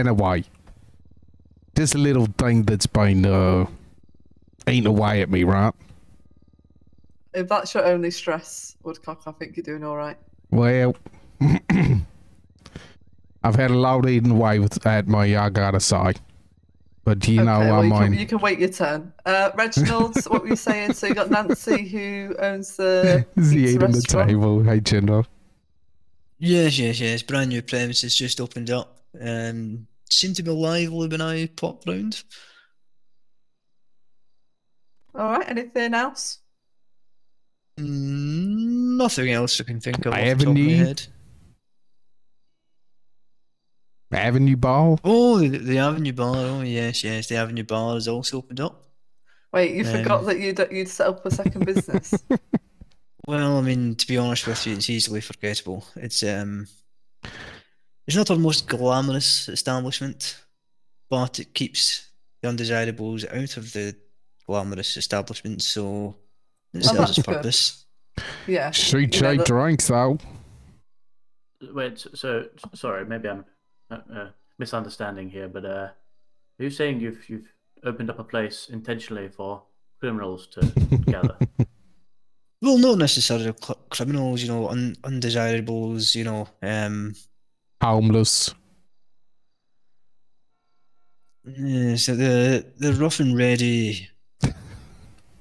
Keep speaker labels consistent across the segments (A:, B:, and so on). A: Anyway, this little thing that's been uh, eating away at me, right?
B: If that's your only stress, Woodcock, I think you're doing all right.
A: Well, I've had a lot eaten away with, at me, I gotta say. But you know,
B: okay, well,
A: I
B: you,
A: mean,
B: can, you can wait your turn. Uh, Reginald, what were you saying? So you got Nancy, who owns the
A: is he
B: pizza
A: eating the
B: restaurant.
A: table? Hey, General.
C: Yes, yes, yes. Brand new premises just opened up. Um, seemed to be lively when I popped round.
B: All right. Anything else?
C: Mm, Nothing else I can think of.
A: I
C: off the
A: have a
C: top of my
A: need.
C: head.
A: Avenue Ball?
C: Oh, the, the Avenue Bar. Oh, yes, yes. The Avenue Bar is also opened up.
B: Wait, you forgot
C: Um,
B: that you'd you'd set up a second business.
C: Well, I mean, to be honest with you, it's easily forgettable. It's um, it's not our most glamorous establishment, but it keeps the undesirables out of the glamorous establishment, so
B: Well,
C: it serves its
B: that's good.
C: purpose.
B: yeah.
A: She
B: You know,
A: cheap
B: that-
A: drinks, though.
D: Wait, s- so s- sorry, maybe I'm uh, uh, misunderstanding here, but uh, are you saying you've you've opened up a place intentionally for criminals to gather?
C: Well, not necessarily cl- criminals, you know, un undesirables, you know, um,
A: Homeless.
C: yeah, so the the rough and ready,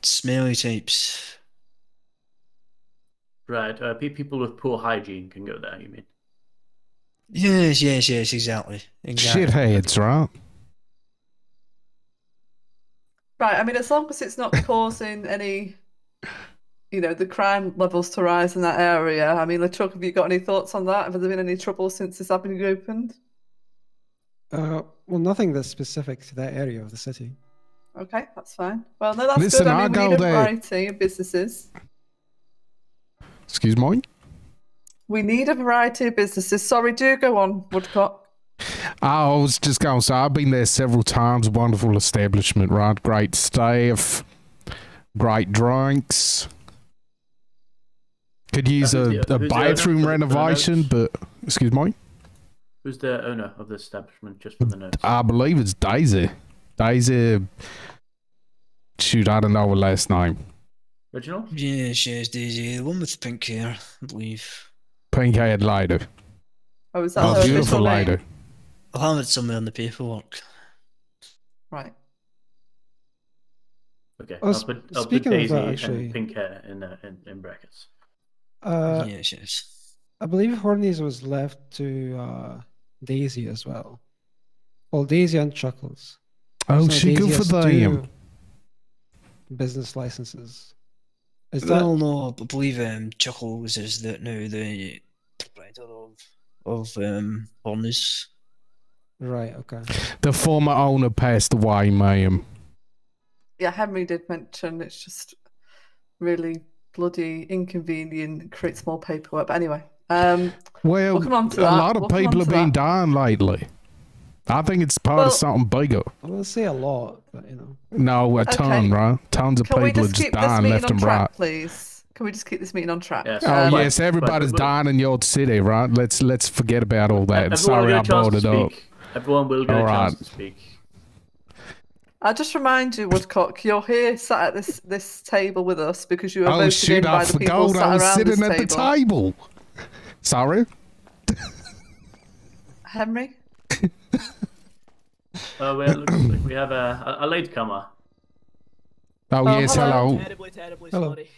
C: smelly types.
D: Right, uh, pe- people with poor hygiene can go there. You mean?
C: Yes, yes, yes, exactly, exactly.
A: Shitheads, right?
B: Right. I mean, as long as it's not causing any, you know, the crime levels to rise in that area. I mean, Luchuk, have you got any thoughts on that? Have there been any trouble since this avenue opened?
E: Uh, well, nothing that's specific to that area of the city.
B: Okay, that's fine. Well, no, that's
A: Listen,
B: good.
A: I
B: I mean, we
A: go
B: need a
A: there.
B: variety of businesses.
A: Excuse me?
B: We need a variety of businesses. Sorry, do go on, Woodcock.
A: I was just going to say, I've been there several times. Wonderful establishment, right? Great staff, great drinks. Could use
D: who's
A: a,
D: the-
A: a
D: who's the
A: bathroom
D: owner?
A: renovation, but excuse me,
D: Who's the owner of the establishment? Just for the notes.
A: I believe it's Daisy. Daisy. Shoot, I don't know her last name.
D: Reginald.
C: Yes, yes, Daisy, the one with the pink hair, I believe.
A: Pink haired lady.
B: Oh, is that
A: Oh,
B: her official
A: beautiful
B: name?
A: lady.
C: I'll have it somewhere in the paperwork.
B: Right.
D: Okay,
E: Oh,
D: I'll
E: sp-
D: put, I'll put
E: speaking of
D: Daisy
E: that, actually-
D: and pink hair in, uh, in in brackets.
E: Uh,
C: yes, yes.
E: I believe Hornies was left to uh, Daisy as well. Well, Daisy and Chuckles.
A: Oh,
E: So
A: she
E: Daisy
A: good for
E: has
A: them.
E: two Business licenses. Is that
C: Well, no, I believe um, Chuckles is the now the proprietor of of um Horners.
E: right? Okay.
A: The former owner passed away, ma'am.
B: Yeah, Henry did mention it's just really bloody inconvenient, and creates more paperwork. But anyway, um,
A: Well,
B: We'll come on
A: a
B: to that.
A: lot of
B: We'll come
A: people
B: on
A: have
B: to
A: been
B: that.
A: dying lately. I think it's part
B: Well-
A: of something bigger.
E: I won't say a lot, but you know.
A: No, a ton, right? Tons of
B: can we
A: people are
B: just
A: just
B: keep this
A: dying
B: meeting
A: left
B: on
A: and
B: track, Uh,
A: right.
B: please? Can we just keep this meeting on track?
D: Yes.
A: Oh
D: Um, But-
A: yes, everybody's
D: but-
A: dying in your city, right? Let's let's forget about all that.
D: Everyone
A: Sorry,
D: will
A: I
D: get a chance
A: brought
D: to
A: it up.
D: speak. Everyone will get
A: All
D: a chance
A: right.
D: to speak.
B: I'll just remind you, Woodcock, you're here sat at this this table with us because you were
A: Oh
B: voted in
A: shoot,
B: by
A: I
B: the people
A: forgot. I
B: sat
A: was
B: around
A: sitting
B: this
A: at the
B: table.
A: table. Sorry.
B: Henry?
D: Oh, well, looks like we have a, a, a latecomer.
A: Oh,
B: Oh,
A: yes, hello.
B: hello.
F: Terribly, terribly
E: Hello.
F: sorry.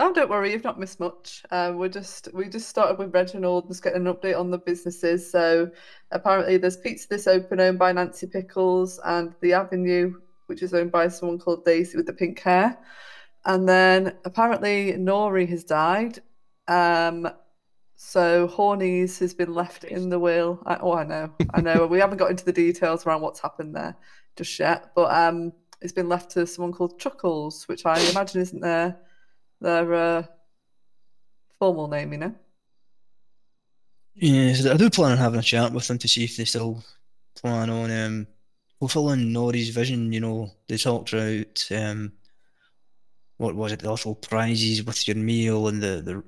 B: Oh, don't worry, you've not missed much. Um, we're just we just started with Reginald, just getting an update on the businesses. So apparently, there's Pizza This Open owned by Nancy Pickles, and the Avenue, which is owned by someone called Daisy with the pink hair. And then apparently, Nori has died. Um, so Hornies has been left in the will. I, oh, I know, I know. we haven't got into the details around what's happened there just yet, but um, it's been left to someone called Chuckles, which I imagine isn't there their uh, formal name, you know.
C: Yes, I do plan on having a chat with them to see if they still plan on um fulfilling Nori's vision. You know, they talked about um what was it, the little prizes with your meal and the the,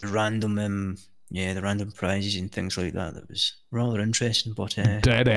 C: the random um yeah, the random prizes and things like that. That was rather interesting, but uh,
A: Dead